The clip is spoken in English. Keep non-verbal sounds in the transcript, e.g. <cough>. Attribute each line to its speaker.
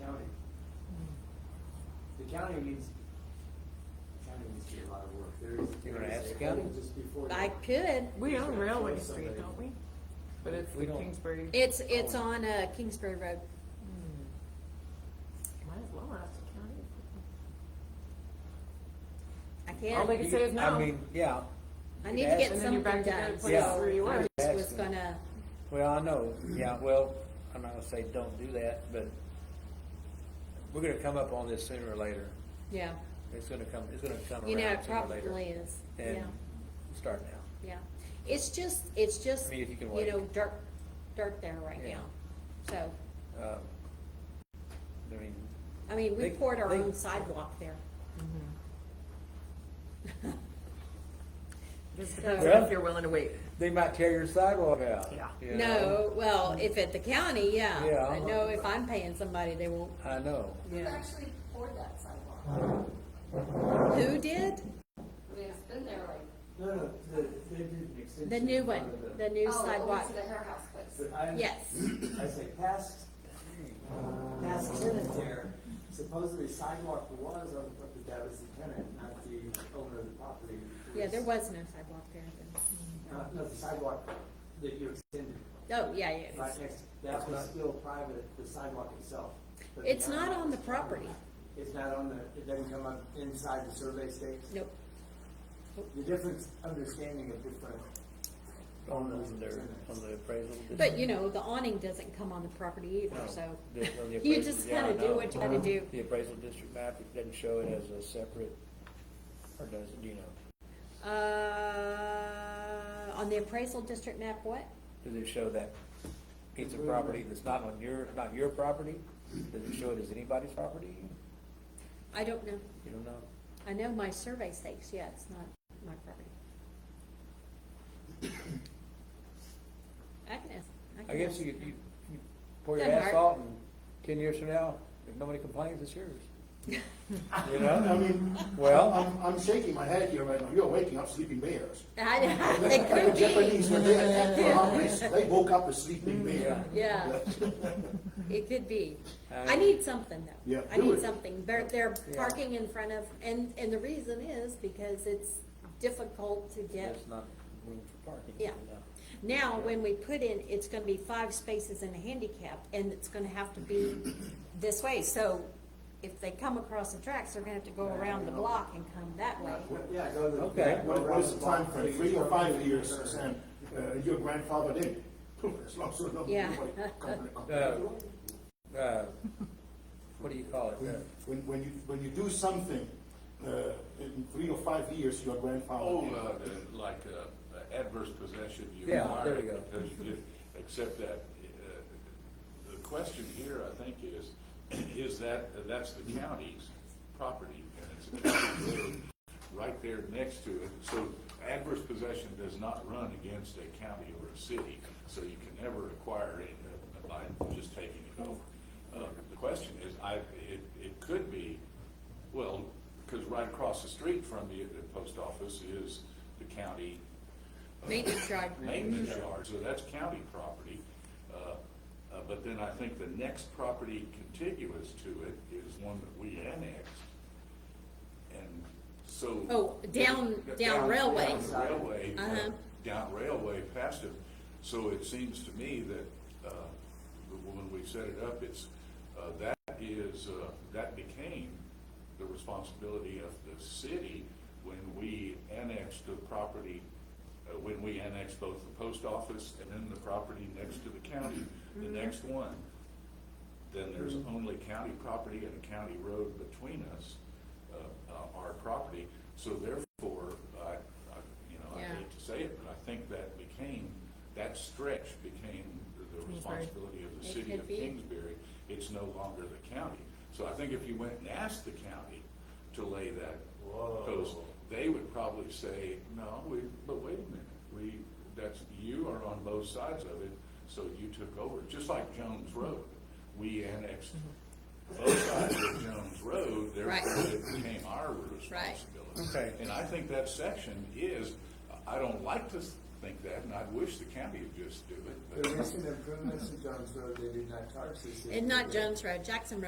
Speaker 1: Hmm.
Speaker 2: county needs, county needs to do a lot of work, there's.
Speaker 1: You wanna
Speaker 2: there's a
Speaker 1: ask the county?
Speaker 2: hole Just before.
Speaker 3: I
Speaker 2: the-
Speaker 3: could.
Speaker 4: We own
Speaker 2: Yeah,
Speaker 4: Railway
Speaker 2: so
Speaker 4: Street,
Speaker 2: somebody-
Speaker 4: don't we? But it's
Speaker 1: We
Speaker 4: the
Speaker 1: don't-
Speaker 4: Kingsbury.
Speaker 3: It's, it's on, uh, Kingsbury Road.
Speaker 4: Hmm. Might as well ask the county.
Speaker 3: I
Speaker 4: All they
Speaker 3: can't,
Speaker 4: can say is
Speaker 1: You- I
Speaker 4: no.
Speaker 1: mean, yeah,
Speaker 3: I
Speaker 1: you
Speaker 3: need to
Speaker 1: ask
Speaker 3: get
Speaker 4: And then you're
Speaker 3: something
Speaker 4: back to the
Speaker 3: done.
Speaker 4: place
Speaker 1: Yeah.
Speaker 4: where you were.
Speaker 3: I
Speaker 1: Ask
Speaker 3: was
Speaker 1: them.
Speaker 3: gonna,
Speaker 1: well, I know, yeah, well, I'm not gonna say don't do that, but we're gonna come up on this sooner or later.
Speaker 3: yeah,
Speaker 1: It's gonna come, it's gonna come around
Speaker 3: you know, it
Speaker 1: sooner or later.
Speaker 3: probably is, yeah,
Speaker 1: And start now.
Speaker 3: yeah. It's just, it's just,
Speaker 1: mean, if you
Speaker 3: you
Speaker 1: can wait.
Speaker 3: know, dirt, dirt there right
Speaker 1: Yeah.
Speaker 3: now. So,
Speaker 1: Um, I mean,
Speaker 3: I mean, we
Speaker 1: They-
Speaker 3: poured our
Speaker 1: they-
Speaker 3: own sidewalk there.
Speaker 1: Mm-hmm.
Speaker 4: Just depends
Speaker 1: Yeah.
Speaker 4: if you're willing to wait.
Speaker 1: they might tear your sidewalk out.
Speaker 4: Yeah.
Speaker 1: you know?
Speaker 3: <laughs> No, well, if at the county, yeah.
Speaker 1: Yeah. uh-huh.
Speaker 3: But no, if I'm paying somebody, they won't,
Speaker 1: I know.
Speaker 5: Who
Speaker 3: yeah.
Speaker 5: actually poured that sidewalk?
Speaker 3: Who did?
Speaker 5: I mean, it's been there like,
Speaker 2: No, no, the, they did an extension.
Speaker 3: The new
Speaker 2: in front
Speaker 3: one,
Speaker 2: of
Speaker 3: the new
Speaker 5: oh,
Speaker 3: sidewalk.
Speaker 5: over to the hair house place.
Speaker 2: But I.
Speaker 3: Yes.
Speaker 2: I say past, past tenant there, supposedly sidewalk was on, but that was the tenant, not the owner of the property.
Speaker 3: Yeah, there was no sidewalk there.
Speaker 2: Not, no, the sidewalk that you extended,
Speaker 3: Oh, yeah, yeah. it was-
Speaker 2: right next, that
Speaker 1: It's
Speaker 2: was
Speaker 1: not-
Speaker 2: still private, the sidewalk itself. but the
Speaker 3: It's not
Speaker 2: county-
Speaker 3: on the property.
Speaker 2: It's not on the, it doesn't come up inside the survey state?
Speaker 3: Nope.
Speaker 2: The difference, understanding of different.
Speaker 1: On the, on their, on the appraisal.
Speaker 3: But, you know, the awning doesn't come on the property either,
Speaker 1: No,
Speaker 3: so.
Speaker 1: the- on the
Speaker 3: <laughs> You
Speaker 1: appraisal,
Speaker 3: just
Speaker 1: yeah, I
Speaker 3: gotta do
Speaker 1: know.
Speaker 3: what you gotta
Speaker 1: <laughs>
Speaker 3: do.
Speaker 1: The appraisal district map, it doesn't show it as a separate, or does it, do you know?
Speaker 3: Uh, on the appraisal district map, what?
Speaker 1: Does it show that piece of property that's not on your, not your property? Does it show it as anybody's property?
Speaker 3: I don't know.
Speaker 1: You don't know?
Speaker 3: I know my survey stakes, yeah, it's not my property. I can ask.
Speaker 1: I guess
Speaker 3: ask.
Speaker 1: you, you, you pour your
Speaker 3: Doesn't hurt.
Speaker 1: asphalt and ten years from now, if nobody complains, it's
Speaker 3: <laughs>
Speaker 1: yours. You know?
Speaker 6: I mean,
Speaker 1: Well-
Speaker 6: I'm, I'm shaking my head here right now. You're waking up sleeping
Speaker 3: <laughs>
Speaker 6: bears.
Speaker 3: I, they
Speaker 6: That's like the
Speaker 3: could
Speaker 6: Japanese
Speaker 3: be,
Speaker 6: were
Speaker 3: <laughs>
Speaker 6: dead. For our race, They woke up a sleeping bear. <laughs>
Speaker 3: yeah, it could be. I
Speaker 1: Um,
Speaker 3: need something though.
Speaker 6: Yeah,
Speaker 3: I
Speaker 6: do
Speaker 3: need
Speaker 6: it.
Speaker 3: something. They're, they're
Speaker 1: Yeah.
Speaker 3: parking in front of, and, and the reason is because it's difficult to get.
Speaker 1: There's not room for parking.
Speaker 3: Yeah.
Speaker 1: you know?
Speaker 3: Now, when we put in, it's gonna be five spaces and a handicap, and it's gonna have to be this way, so if they come across the tracks, they're gonna have to go around the block and come that way.
Speaker 2: Yeah, go to the.
Speaker 1: Okay.
Speaker 2: go
Speaker 6: What, what is
Speaker 2: around
Speaker 6: the
Speaker 2: block.
Speaker 6: time frame? Three or five years, Sam? Uh, your grandfather did. <laughs> As long as there's no
Speaker 3: Yeah. <laughs>
Speaker 6: nobody coming up.
Speaker 1: Uh, uh, What do you call it? Uh,
Speaker 6: When, when you, when you do something, uh, in three or five years, your grandfather.
Speaker 7: Oh,
Speaker 6: did.
Speaker 7: uh, the- like uh, uh, adverse possession, you
Speaker 1: Yeah,
Speaker 7: acquire
Speaker 1: there
Speaker 7: it
Speaker 1: you go.
Speaker 7: because you did- Except that, uh, the question here, I think, is, is that, that's the county's property, and it's a county road right there next to it. So adverse possession does not run against a county or a city, so you can never acquire it uh, by just taking it over. Uh, The question is, I, it, it could be, well, because right across the street from the, the post office is the county uh,
Speaker 3: Maintenance yard.
Speaker 7: maintenance yard, so that's county property. Uh, uh, But then I think the next property contiguous to it is one that we annexed. And so.
Speaker 3: Oh, down- down railway.
Speaker 7: Down railway, uh,
Speaker 3: Uh-huh.
Speaker 7: down railway past it. So it seems to me that uh, when we set it up, it's, uh, that is, uh, that became the responsibility of the city when we annexed the property, uh, when we annexed both the post office and then the property next to the county, the
Speaker 3: Mm-hmm.
Speaker 7: next one. Then there's only county property and a county road between us, uh, uh, our property. So therefore, I, I, you know, I
Speaker 3: Yeah.
Speaker 7: hate to say it, but I think that became, that stretch became the- the
Speaker 4: Kingsbury.
Speaker 7: responsibility of the
Speaker 3: It
Speaker 7: city
Speaker 3: could
Speaker 7: of
Speaker 3: be.
Speaker 7: Kingsbury. It's no longer the county. So I think if you went and asked the county to lay that post, they would probably say, no, we, but wait a minute, we, that's, you are on both sides of it, so you took over, just like Jones Road. We annexed both sides of Jones Road,
Speaker 3: Mm-hmm. Right.
Speaker 7: therefore it became our
Speaker 3: Right.
Speaker 7: responsibility.
Speaker 1: Okay.
Speaker 7: And I think that section is, I don't like to think that, and I wish the county would just do it, but.
Speaker 2: The recent improvements to Jones Road, they did not charge this.
Speaker 3: And not Jones Road, Jackson Road